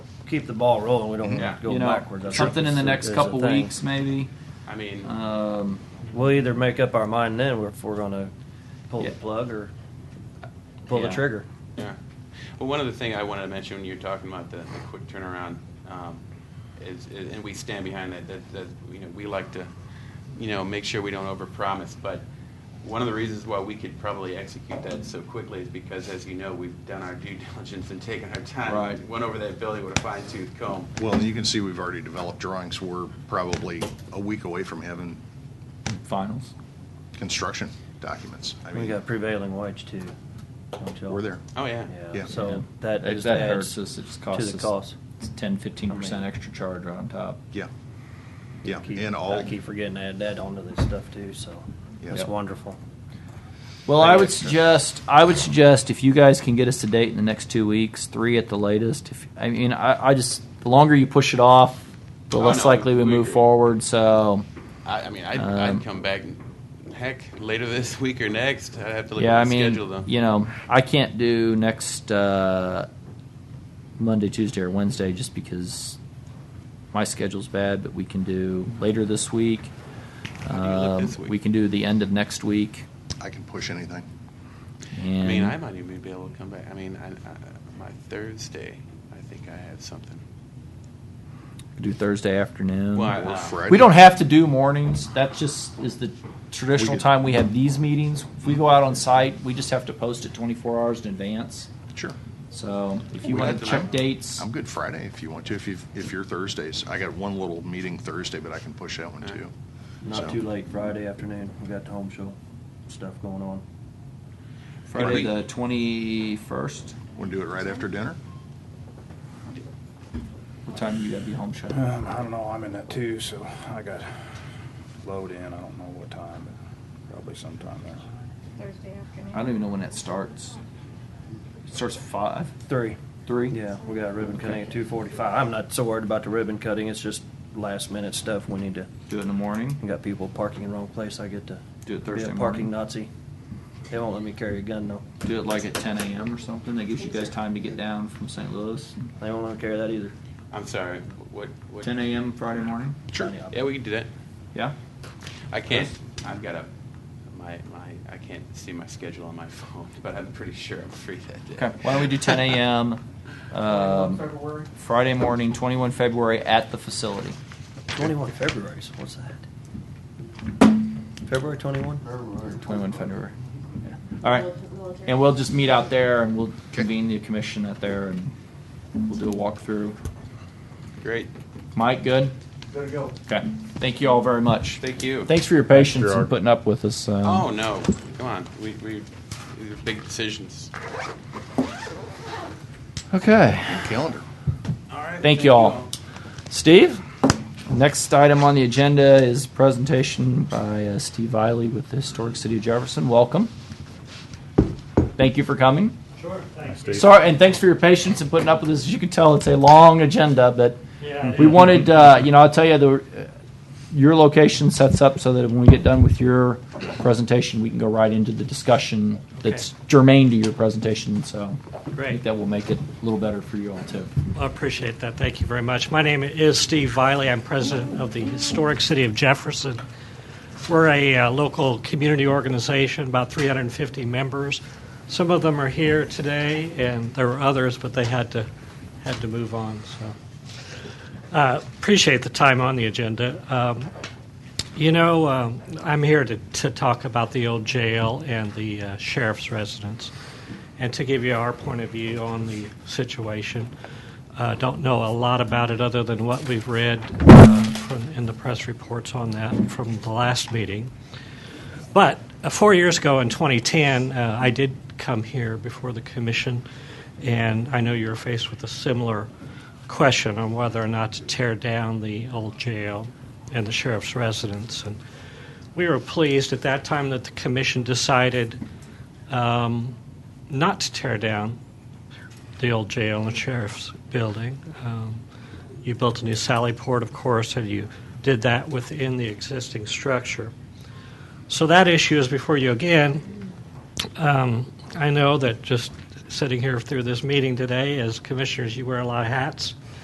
keep the ball rolling. We Mm-hmm. don't Yeah. go Mm-hmm. you know, backwards. I think something in the is- next is a couple thing. weeks, maybe. I mean, Um, We'll either make up our mind then if we're going to pull Yeah. the plug or pull Yeah. the trigger. yeah. Well, one other thing I wanted to mention when you were talking about the, the quick turnaround um, is, is, and we stand behind that, that, that, you know, we like to, you know, make sure we don't overpromise, but one of the reasons why we could probably execute that so quickly is because, as you know, we've done our due diligence and taken our time. Right. Went over that building with a fine tooth comb. Well, and you can see we've already developed drawings. We're probably a week away from having finals. construction documents. I we mean, got prevailing wage too. don't y'all? we're there. Oh, yeah. Yeah. Yeah. So Yeah. that If just that adds hurts us. It just costs to the us cost. It's 10, 15 I percent mean- extra charge right on top. Yeah. Yeah, Keep- and all, I keep forgetting to add that onto this stuff too. So Yeah. it's Yep. wonderful. Well, Like I would extra. suggest I would suggest if you guys can get us a date in the next two weeks, three at the latest. If I mean, I, I just the longer you push it off, the Oh, less no, likely we we move agree. forward. So, I, I mean, I'd, Um, I'd come back, and- heck, later this week or next. I'd have to look yeah, I at the mean, schedule, though. you know, I can't do next uh, Monday, Tuesday, or Wednesday just because my schedule's bad. But we can do later this week. How do you look Um, this week? We can do the end of next week. I can push anything. And I mean, I might even be able to come back. I mean, I, I, my Thursday, I think I have something. do Thursday afternoon. Well, I- Or uh, Friday. We don't have to do mornings. That just is the traditional We could- time we have these meetings. If we go out on site, we just have to post it 24 hours in advance. Sure. So if you We want have to to check know. dates, I'm good Friday if you want to, if you, if you're Thursdays. I got one little meeting Thursday, but I can push that one too. Not So- too late Friday afternoon. We got the home show stuff going on. Friday we- the 21st. Want to do it right after dinner? What time do you gotta be home, Sean? Um, I don't know, I'm in that too, so I got load in, I don't know what time, but probably sometime there. Thursday afternoon. I don't even know when that starts. It starts at five, Three. three. Yeah, we got ribbon Okay. cutting at two forty-five. I'm not so worried about the ribbon cutting. It's just last minute stuff we need to. Do it in the morning. We got people parking in the wrong place. I get to Do it Thursday be a parking morning. Nazi. They won't let me carry a gun though. Do it like at 10 a.m. or something. That gives you guys time to get down from St. Louis. They won't let me carry that either. I'm sorry. What? what 10 a.m. Friday morning. Sure. Yeah, we can do that. Yeah. I can't. I've got a my my. I can't see my schedule on my phone, but I'm pretty sure I'm free that day. Okay, why don't we do 10 a.m. Um, Friday morning, 21 February, at the facility. Twenty-one February. So what's that? February twenty-one. 21 February. Yeah. All right, and we'll just meet out there, and we'll convene the commission out there, and we'll do a walkthrough. Great. Mike, good. Good to go. Okay, thank you all very much. Thank you. Thanks for your patience and Gerard. putting up with us. um, Oh no! Come on. We we. These are big decisions. Okay, Calendar. All right. thank you all. Steve, next item on the agenda is presentation by uh, Steve Eiley with the Historic City of Jefferson. Welcome. Thank you for coming. Sorry, and thanks for your patience and putting up with us. As you can tell, it's a long agenda, but we wanted, uh, you know, I'll tell you, the, uh, your location sets up so that when we get done with your presentation, we can go right into the discussion that's germane to your presentation. So I think Great. that will make it a little better for you all, too. I appreciate that. Thank you very much. My name is Steve Viley. I'm president of the historic city of Jefferson. We're a uh, local community organization, about 350 members. Some of them are here today, and there were others, but they had to had to move on. So uh, appreciate the time on the agenda. Um, you know, um, I'm here to, to talk about the old jail and the uh, sheriff's residence, and to give you our point of view on the situation. Uh, don't know a lot about it other than what we've read uh, from, in the press reports on that from the last meeting. But uh, four years ago in 2010, uh, I did come here before the commission, and I know you were faced with a similar question on whether or not to tear down the old jail and the sheriff's residence. And we were pleased at that time that the commission decided um, not to tear down the old jail and sheriff's building. Um, you built a new Sally Port, of course, and you did that within the existing structure. So that issue is before you again. Um, I know that just sitting here through this meeting today, as commissioners, you wear a lot of hats.